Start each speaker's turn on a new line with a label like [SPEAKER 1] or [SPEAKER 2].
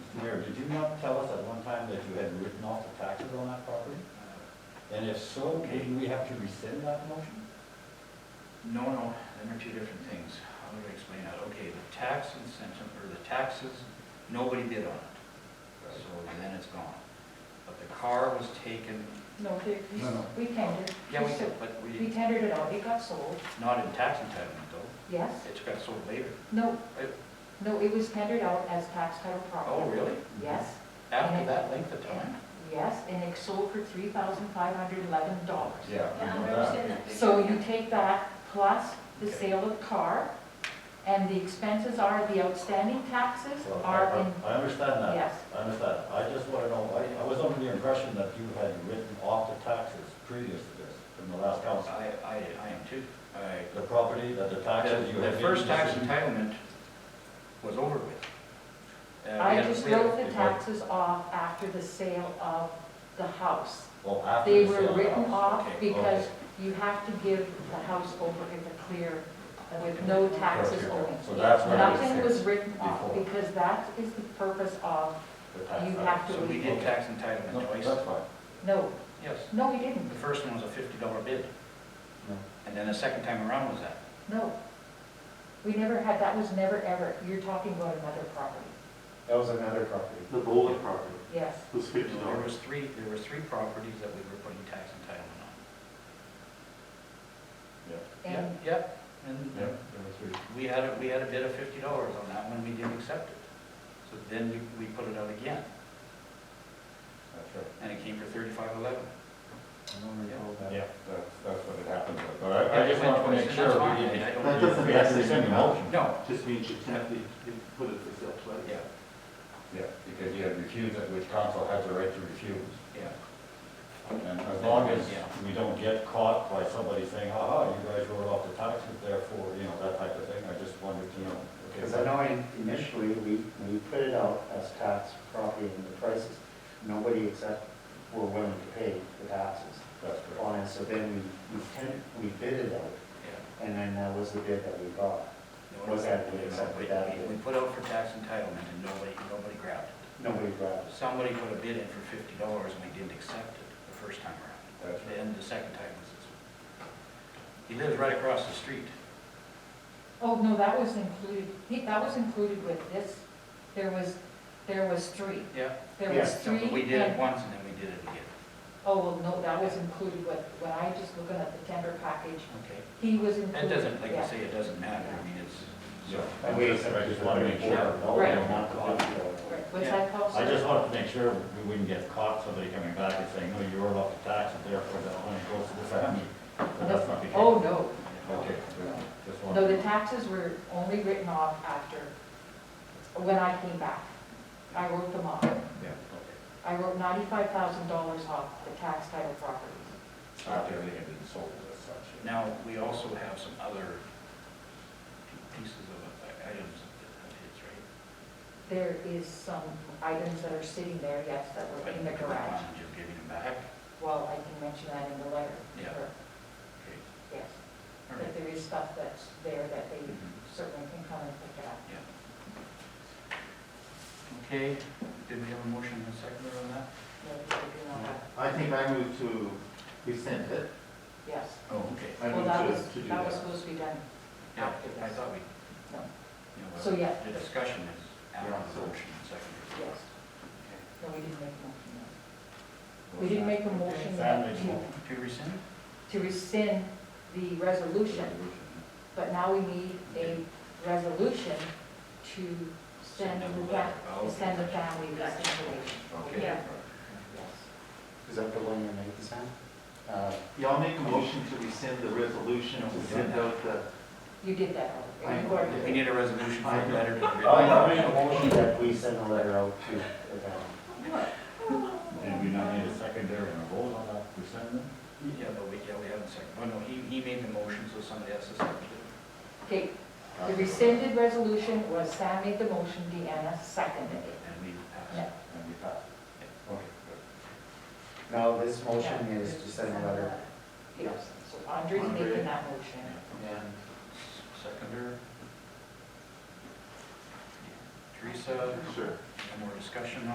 [SPEAKER 1] you not tell us at one time that you had written off the taxes on that property? And if so, didn't we have to rescind that motion?
[SPEAKER 2] No, no, them are two different things. How do I explain that? Okay, the tax incentive, or the taxes, nobody bid on it, so then it's gone. But the car was taken,
[SPEAKER 3] No, they- we-
[SPEAKER 1] No, no.
[SPEAKER 3] we tendered.
[SPEAKER 2] yeah, we,
[SPEAKER 3] sold-
[SPEAKER 2] but
[SPEAKER 3] We
[SPEAKER 2] we,
[SPEAKER 3] tendered it out, it got sold,
[SPEAKER 2] not in tax entitlement though,
[SPEAKER 3] yes.
[SPEAKER 2] it got sold later.
[SPEAKER 3] No,
[SPEAKER 2] It-
[SPEAKER 3] no, it was tendered out as tax title
[SPEAKER 2] Oh,
[SPEAKER 3] property.
[SPEAKER 2] really?
[SPEAKER 3] Yes,
[SPEAKER 2] After that length of time?
[SPEAKER 3] yes, and it sold for three thousand five hundred eleven dollars.
[SPEAKER 1] Yeah.
[SPEAKER 4] Yeah,
[SPEAKER 2] Oh,
[SPEAKER 4] I understand that.
[SPEAKER 3] So you take that plus the
[SPEAKER 2] Okay.
[SPEAKER 3] sale of car, and the expenses are, the outstanding taxes
[SPEAKER 1] Well, I-
[SPEAKER 3] are
[SPEAKER 1] I-
[SPEAKER 3] in,
[SPEAKER 1] I understand that.
[SPEAKER 3] yes.
[SPEAKER 1] I understand. I just want to know, I, I was under the impression that you had written off the taxes previous to this, from the last
[SPEAKER 2] I,
[SPEAKER 1] council.
[SPEAKER 2] I, I am too. I,
[SPEAKER 1] The property, that the taxes you
[SPEAKER 2] The
[SPEAKER 1] had.
[SPEAKER 2] the first
[SPEAKER 1] given
[SPEAKER 2] tax
[SPEAKER 1] us-
[SPEAKER 2] entitlement was over with. Uh, we
[SPEAKER 3] I
[SPEAKER 2] had-
[SPEAKER 3] just
[SPEAKER 2] we had-
[SPEAKER 3] wrote the
[SPEAKER 1] if I-
[SPEAKER 3] taxes off after the sale of the house.
[SPEAKER 1] Well, after uh,
[SPEAKER 3] They
[SPEAKER 1] the
[SPEAKER 3] were
[SPEAKER 1] sale.
[SPEAKER 3] written off
[SPEAKER 2] Okay,
[SPEAKER 3] because you have to give the house over in the clear with no taxes
[SPEAKER 1] Perfect.
[SPEAKER 3] owing.
[SPEAKER 1] So that's what I was
[SPEAKER 3] Nothing was
[SPEAKER 1] saying,
[SPEAKER 3] written off
[SPEAKER 1] before.
[SPEAKER 3] because that is the purpose of,
[SPEAKER 1] the tax
[SPEAKER 3] you
[SPEAKER 1] title.
[SPEAKER 3] have to-
[SPEAKER 2] So we did tax entitlement
[SPEAKER 1] No,
[SPEAKER 2] twice.
[SPEAKER 1] that's fine.
[SPEAKER 3] no,
[SPEAKER 2] Yes,
[SPEAKER 3] no, we didn't,
[SPEAKER 2] the first one was a fifty dollar bid,
[SPEAKER 1] No.
[SPEAKER 2] and then the second time around was that.
[SPEAKER 3] no. We never had, that was never ever, you're talking about another property,
[SPEAKER 5] That was another property.
[SPEAKER 6] The bowling property
[SPEAKER 3] yes.
[SPEAKER 6] was fifty
[SPEAKER 2] There
[SPEAKER 6] dollars.
[SPEAKER 2] was three, there was three properties that we were putting tax entitlement on.
[SPEAKER 3] And
[SPEAKER 2] Yep, Yep, and
[SPEAKER 1] Yeah, there were three.
[SPEAKER 2] we had, a we had a bid of fifty dollars on that one, we didn't accept it. So then we, we put it out again,
[SPEAKER 1] That's right.
[SPEAKER 2] and it came for thirty-five eleven.
[SPEAKER 1] Yeah, that's, that's what it happened, with. but I, I just wanted to make sure
[SPEAKER 2] That's
[SPEAKER 1] we
[SPEAKER 2] fine,
[SPEAKER 1] didn't.
[SPEAKER 2] I don't-
[SPEAKER 6] That doesn't-
[SPEAKER 1] We actually sent a motion.
[SPEAKER 2] No,
[SPEAKER 6] Just means you can't, you can put it for sale twice.
[SPEAKER 2] yeah,
[SPEAKER 1] Yeah, because you had refused it, which council has the right to refuse.
[SPEAKER 2] yeah.
[SPEAKER 1] And as long as
[SPEAKER 2] Yeah.
[SPEAKER 1] we don't get caught by somebody saying, aha, you guys wrote off the taxes, therefore, you know, that type of thing, I just wanted to know. okay,
[SPEAKER 5] Because I know in- initially, we, we put it out as tax property and the prices, nobody except were willing to pay the taxes
[SPEAKER 1] That's correct.
[SPEAKER 5] on it, so then we, we ten, we bid it out,
[SPEAKER 2] Yeah.
[SPEAKER 5] and then that was the bid that we got. Was that- we accepted that bid.
[SPEAKER 2] We put out for tax entitlement and nobody, nobody grabbed it.
[SPEAKER 5] Nobody grabbed us.
[SPEAKER 2] Somebody put a bid in for fifty dollars and we didn't accept it the first time around.
[SPEAKER 1] That's right.
[SPEAKER 2] Then the second time was this one. He lives right across the street.
[SPEAKER 3] Oh, no, that was included, he- that was included with this. There was, there was three.
[SPEAKER 2] Yeah.
[SPEAKER 3] There
[SPEAKER 5] Yeah,
[SPEAKER 3] was
[SPEAKER 2] So
[SPEAKER 3] three.
[SPEAKER 2] We did it
[SPEAKER 3] and-
[SPEAKER 2] once and then we did it again.
[SPEAKER 3] Oh, well, no, that was included with, when I just looking at the tender package,
[SPEAKER 2] Okay.
[SPEAKER 3] he was included.
[SPEAKER 2] It doesn't, like
[SPEAKER 3] yeah.
[SPEAKER 2] I say, it doesn't matter. I mean, it's,
[SPEAKER 1] Yeah,
[SPEAKER 2] so,
[SPEAKER 1] I just, I just wanted to make sure.
[SPEAKER 5] No, we don't want to bid it out.
[SPEAKER 3] Right, Was
[SPEAKER 2] Yeah.
[SPEAKER 3] that called?
[SPEAKER 1] I just wanted to make sure we wouldn't get caught, somebody coming back and saying, no, you wrote off the taxes, therefore that money goes to the family. But that's not the case.
[SPEAKER 3] Oh, no.
[SPEAKER 1] Okay, just
[SPEAKER 3] No, the
[SPEAKER 1] wanted.
[SPEAKER 3] taxes were only written off after, when I came back. I wrote them off.
[SPEAKER 1] Yeah, okay.
[SPEAKER 3] I wrote ninety-five thousand dollars off the tax title properties.
[SPEAKER 1] After everything had been sold as such.
[SPEAKER 2] now, we also have some other p- pieces of uh, items of his, right?
[SPEAKER 3] There is some items that are sitting there, yes, that were in the
[SPEAKER 2] But
[SPEAKER 3] garage.
[SPEAKER 2] You're giving them back?
[SPEAKER 3] Well, I can mention that in the letter.
[SPEAKER 2] Yeah.
[SPEAKER 3] Sure,
[SPEAKER 2] Okay.
[SPEAKER 3] Yes,
[SPEAKER 2] All
[SPEAKER 3] but
[SPEAKER 2] right.
[SPEAKER 3] there is stuff that's there that they
[SPEAKER 2] Mhm.
[SPEAKER 3] certainly can come and pick up.
[SPEAKER 2] Okay, did we have a motion and a second on that?
[SPEAKER 3] No, they do not have-
[SPEAKER 6] I think I moved to rescind it.
[SPEAKER 3] Yes.
[SPEAKER 2] Oh, okay.
[SPEAKER 6] I
[SPEAKER 3] Well,
[SPEAKER 6] moved
[SPEAKER 3] that
[SPEAKER 6] to,
[SPEAKER 3] was,
[SPEAKER 6] to do
[SPEAKER 3] that was
[SPEAKER 6] that.
[SPEAKER 3] supposed to be done
[SPEAKER 2] Yeah,
[SPEAKER 3] after
[SPEAKER 2] I
[SPEAKER 3] this.
[SPEAKER 2] thought we,
[SPEAKER 3] No,
[SPEAKER 2] you know,
[SPEAKER 3] So, yeah.
[SPEAKER 2] the discussion is after
[SPEAKER 6] Yeah, so-
[SPEAKER 2] the motion and second.
[SPEAKER 3] yes.
[SPEAKER 2] Okay.
[SPEAKER 3] No, we didn't make a motion. no. We didn't make a motion that
[SPEAKER 1] Family
[SPEAKER 3] to,
[SPEAKER 1] law.
[SPEAKER 2] To rescind?
[SPEAKER 3] to rescind the resolution, but now we need a resolution to send
[SPEAKER 2] Send them
[SPEAKER 3] the,
[SPEAKER 2] a
[SPEAKER 3] fa-
[SPEAKER 2] letter. Oh,
[SPEAKER 3] to
[SPEAKER 2] okay.
[SPEAKER 3] send the family this information.
[SPEAKER 2] Okay.
[SPEAKER 4] Yeah.
[SPEAKER 3] Yes.
[SPEAKER 5] Is that the one you're making, Sam? Uh,
[SPEAKER 6] Yeah, I'll make a motion to rescind the resolution to send out the,
[SPEAKER 3] You did that already.
[SPEAKER 6] I-
[SPEAKER 3] You already-
[SPEAKER 2] We need a resolution for the letter to the.
[SPEAKER 5] I made a motion that we send a letter out to the town.
[SPEAKER 1] And we now need a secondary and a vote on that, we send them?
[SPEAKER 2] Yeah, but we, yeah, we haven't seconded. Oh, no, he, he made the motion, so somebody else has seconded it.
[SPEAKER 3] Okay, the rescinded resolution was Sam made the motion, Deanna seconded it.
[SPEAKER 2] And we
[SPEAKER 3] Yeah.
[SPEAKER 2] passed.
[SPEAKER 1] And we pass. Okay, good.
[SPEAKER 5] Now, this motion is to send a letter
[SPEAKER 3] Yes, so Andre's
[SPEAKER 6] Andre.
[SPEAKER 3] making that motion.
[SPEAKER 6] and
[SPEAKER 2] Seconder. Teresa,
[SPEAKER 6] sure.
[SPEAKER 2] any more discussion